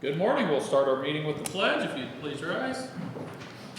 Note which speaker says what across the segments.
Speaker 1: Good morning. We'll start our meeting with the pledge. If you'd please rise.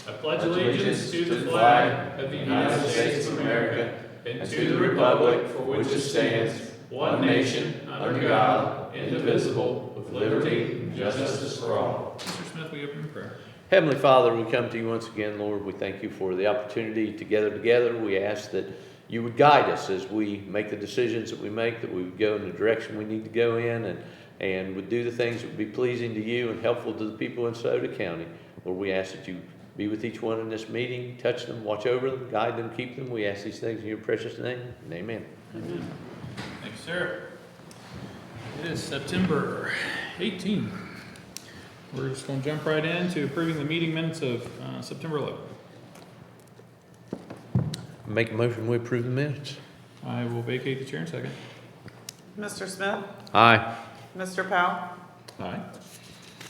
Speaker 1: I pledge allegiance to the flag of the United States of America and to the republic for which it stands, one nation, under God, indivisible, with liberty and justice for all. Mr. Smith, we open in prayer.
Speaker 2: Heavenly Father, we come to you once again, Lord. We thank you for the opportunity to gather together. We ask that you would guide us as we make the decisions that we make, that we would go in the direction we need to go in and, and would do the things that would be pleasing to you and helpful to the people in Soda County. Lord, we ask that you be with each one in this meeting, touch them, watch over them, guide them, keep them. We ask these things in your precious name. And amen.
Speaker 1: Amen. Thank you, sir. It is September 18. We're just going to jump right into approving the meeting minutes of uh, September 11.
Speaker 2: Make a motion, we approve the minutes.
Speaker 1: I will vacate the chair in a second.
Speaker 3: Mr. Smith,
Speaker 2: Aye.
Speaker 3: Mr. Powell,
Speaker 1: Aye.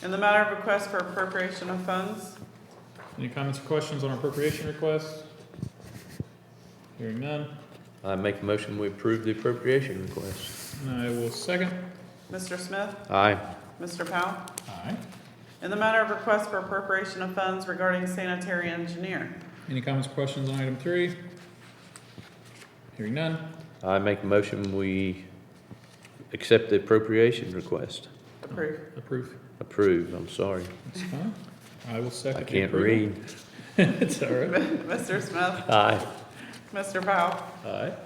Speaker 3: in the matter of request for appropriation of funds,
Speaker 1: Any comments or questions on our appropriation request? Hearing none,
Speaker 2: I make a motion, we approve the appropriation request.
Speaker 1: and I will second.
Speaker 3: Mr. Smith,
Speaker 2: Aye.
Speaker 3: Mr. Powell,
Speaker 1: Aye.
Speaker 3: in the matter of request for appropriation of funds regarding sanitary engineer,
Speaker 1: Any comments or questions on item three? Hearing none,
Speaker 2: I make a motion, we accept the appropriation request.
Speaker 3: approve.
Speaker 1: approve.
Speaker 2: Approve, I'm sorry.
Speaker 1: That's fine. I will second.
Speaker 2: I
Speaker 1: the
Speaker 2: can't
Speaker 1: approval.
Speaker 2: read.
Speaker 1: It's all right.
Speaker 3: Mr. Smith,
Speaker 2: Aye.
Speaker 3: Mr. Powell,
Speaker 1: Aye.